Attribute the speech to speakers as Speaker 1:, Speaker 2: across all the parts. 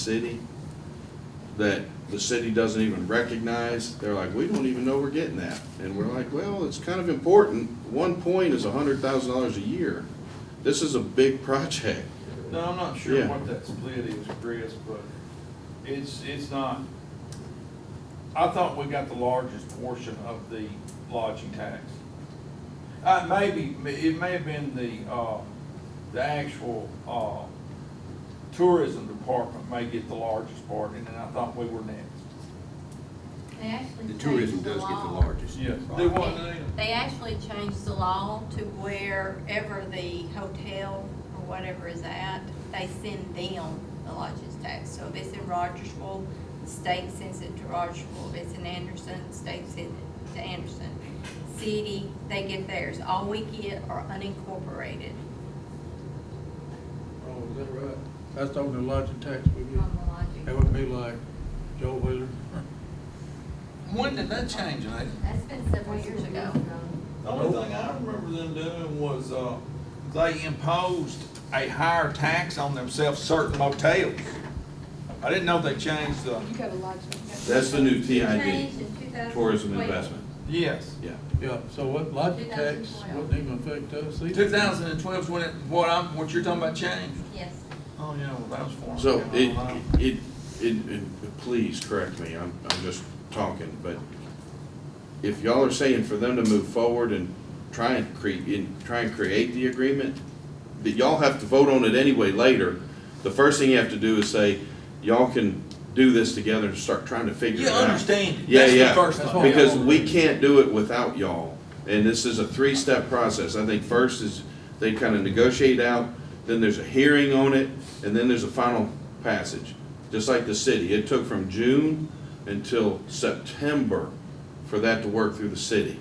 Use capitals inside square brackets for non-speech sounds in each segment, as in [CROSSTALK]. Speaker 1: city that the city doesn't even recognize. They're like, we don't even know we're getting that. And we're like, well, it's kind of important. One point is a hundred thousand dollars a year. This is a big project.
Speaker 2: No, I'm not sure
Speaker 1: Yeah.
Speaker 2: what that split is, Chris, but it's, it's not, I thought we got the largest portion of the lodging tax. Uh, maybe, it may have been the, uh, the actual, uh, tourism department may get the largest part, and then I thought we were next.
Speaker 3: They actually
Speaker 4: The tourism
Speaker 3: changed the
Speaker 4: does get the
Speaker 3: law.
Speaker 4: largest.
Speaker 2: Yes,
Speaker 4: part.
Speaker 2: they want- Well,
Speaker 3: They actually changed the law to wherever the hotel or whatever is at, they send them the lodging tax. So if it's in Rogersville, the state sends it to Rogersville. If it's in Anderson, the state sends it to Anderson. City, they get theirs. All we get are unincorporated
Speaker 5: Oh, is that right? That's talking the lodging tax we get.
Speaker 3: on the lodging.
Speaker 5: That would be like Joe Wheeler.
Speaker 2: When did that change, Nathan?
Speaker 3: That's been several years ago.
Speaker 2: The only thing I remember them doing was, uh, they imposed a higher tax on themselves certain motels. I didn't know they changed the,
Speaker 6: You go to lodging.
Speaker 1: That's the new TID,
Speaker 3: Changed in 2012.
Speaker 1: tourism investment,
Speaker 2: yes.
Speaker 1: yeah.
Speaker 5: Yeah, so what lodging tax
Speaker 3: 2012.
Speaker 5: wouldn't even affect us either.
Speaker 2: Two thousand and twelve's when it, what I'm, what you're talking about changed.
Speaker 3: Yes.
Speaker 2: Oh, yeah, well, that was for.
Speaker 1: So it, it, it, it- please correct me, I'm, I'm just talking, but if y'all are saying for them to move forward and try and cre, and try and create the agreement, that y'all have to vote on it anyway later, the first thing you have to do is say, y'all can do this together and start trying to figure
Speaker 2: You
Speaker 1: it out.
Speaker 2: understand,
Speaker 1: Yeah,
Speaker 2: that's the
Speaker 1: yeah.
Speaker 2: first
Speaker 5: That's
Speaker 2: thing.
Speaker 5: what we
Speaker 1: Because we can't do it without y'all, and this is a three-step process. I think first is they kind of negotiate out, then there's a hearing on it, and then there's a final passage. Just like the city, it took from June until September for that to work through the city.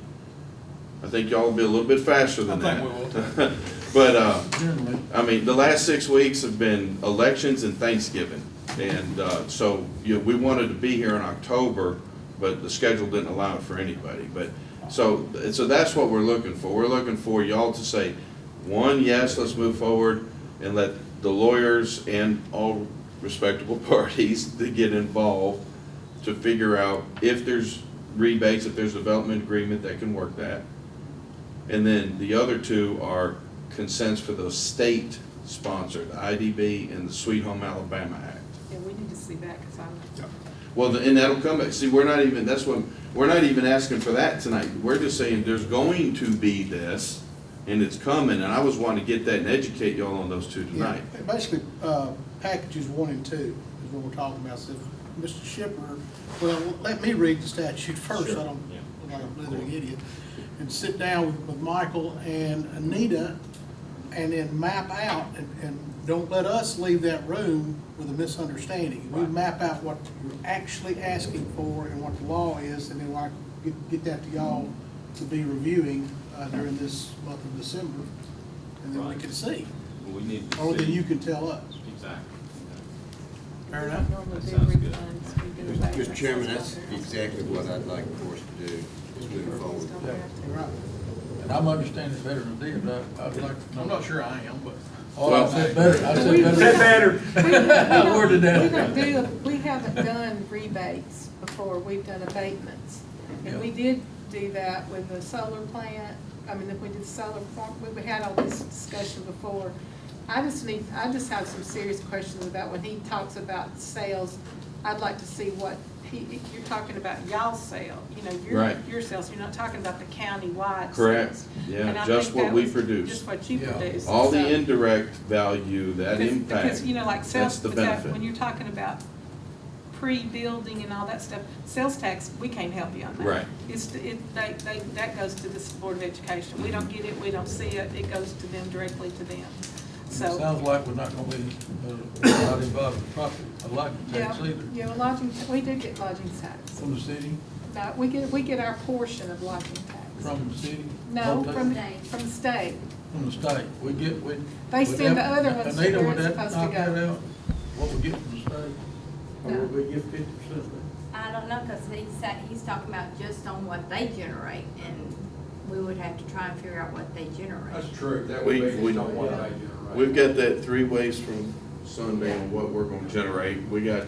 Speaker 1: I think y'all will be a little bit faster than
Speaker 2: I
Speaker 1: that.
Speaker 2: think
Speaker 1: [LAUGHS] But, uh,
Speaker 5: Generally,
Speaker 1: I mean, the last six weeks have been elections and Thanksgiving. And uh, so, you know, we wanted to be here in October, but the schedule didn't allow it for anybody. But, so, so that's what we're looking for. We're looking for y'all to say, one, yes, let's move forward, and let the lawyers and all respectable [LAUGHS] parties to get involved to figure out if there's rebates, if there's development agreement that can work that. And then the other two are consents for the state sponsor, the IDB and the Sweet Home Alabama Act.
Speaker 6: Yeah, we need to see that, because I'm,
Speaker 1: Well, the- and that'll come back. See, we're not even, that's what, we're not even asking for that tonight. We're just saying there's going to be this and it's coming. And I was wanting to get that and educate y'all on those two
Speaker 7: Yeah,
Speaker 1: tonight.
Speaker 7: Basically, uh, packages one and two is what we're talking about. So, if Mr. Shipper, well, let me read the statute [LAUGHS] first,
Speaker 1: Sure,
Speaker 7: I don't,
Speaker 1: yeah.
Speaker 7: look like a blithering idiot. And sit down with- with Michael and Anita, and then map out, and, and don't let us leave that room with a misunderstanding. We map out what you're actually asking for and what the law is, and then like, get, get that to y'all to be reviewing uh, during this month of December, and then we
Speaker 8: Right.
Speaker 7: can see.
Speaker 8: We need to
Speaker 7: Or then
Speaker 8: see.
Speaker 7: Oh, you can tell us.
Speaker 8: Exactly.
Speaker 7: Fair enough.
Speaker 6: normally
Speaker 8: That
Speaker 6: do
Speaker 8: sounds good.
Speaker 6: refunds. we do that.
Speaker 4: Mr. Chairman, that's exactly what I'd like for us to do, is move
Speaker 6: Refunds
Speaker 4: forward.
Speaker 6: don't have to-
Speaker 7: Right.
Speaker 5: and I'm understanding better than they, but I- I'd like to know.
Speaker 2: I'm not sure I am, but.
Speaker 5: Oh, I said better, I said better.
Speaker 6: We- we don't-
Speaker 5: worded that.
Speaker 6: We don't do, we haven't done rebates before, we've done abatements. And we did do that with the solar plant, I mean, if we did solar farm, we, we had all this discussion before. I just need, I just have some serious questions about when he talks about sales, I'd like to see what he, if you're talking about y'all sale, you know, your,
Speaker 1: Right.
Speaker 6: your sales, you're not talking about the countywide sales.
Speaker 1: Correct. Yeah,
Speaker 6: And I
Speaker 1: just
Speaker 6: think
Speaker 1: what
Speaker 6: that
Speaker 1: we
Speaker 6: was
Speaker 1: produce.
Speaker 6: Just what you
Speaker 5: Yeah.
Speaker 6: produce.
Speaker 1: All the
Speaker 6: So-
Speaker 1: indirect value, that
Speaker 6: because-
Speaker 1: impact.
Speaker 6: Because, you know, like
Speaker 1: that's
Speaker 6: sales,
Speaker 1: the
Speaker 6: but that-
Speaker 1: benefit.
Speaker 6: when you're talking about pre-building and all that stuff, sales tax, we can't help you on that.
Speaker 1: Right.
Speaker 6: It's, it, they, they, that goes to the Board of Education. We don't get it, we don't see it, it goes to them, directly to them. So,
Speaker 5: Sounds like we're not gonna be, uh, not involved in profit, a lodging
Speaker 6: yeah,
Speaker 5: tax either
Speaker 6: yeah, well, lodging, we do get lodging tax.
Speaker 5: from the city,
Speaker 6: No, we get, we get our portion of lodging tax.
Speaker 5: from the city.
Speaker 6: No,
Speaker 5: hotel,
Speaker 6: from,
Speaker 3: State.
Speaker 6: from the state.
Speaker 5: From the state, we get, we.
Speaker 6: They
Speaker 5: would
Speaker 6: send
Speaker 5: that-
Speaker 6: the other ones to
Speaker 5: Anita,
Speaker 6: where
Speaker 5: would
Speaker 6: it's
Speaker 5: that
Speaker 6: supposed to
Speaker 5: knock that
Speaker 6: go.
Speaker 5: out? What we get from the state? Or
Speaker 6: No.
Speaker 5: would we get fifty percent of that?
Speaker 3: I don't know, because he's, sa- he's talking about just on what they generate, and we would have to try and figure out what they generate.
Speaker 2: true, that
Speaker 1: would We- be just we- on
Speaker 2: what
Speaker 1: We've got that three ways from sundown what we're gonna generate. We got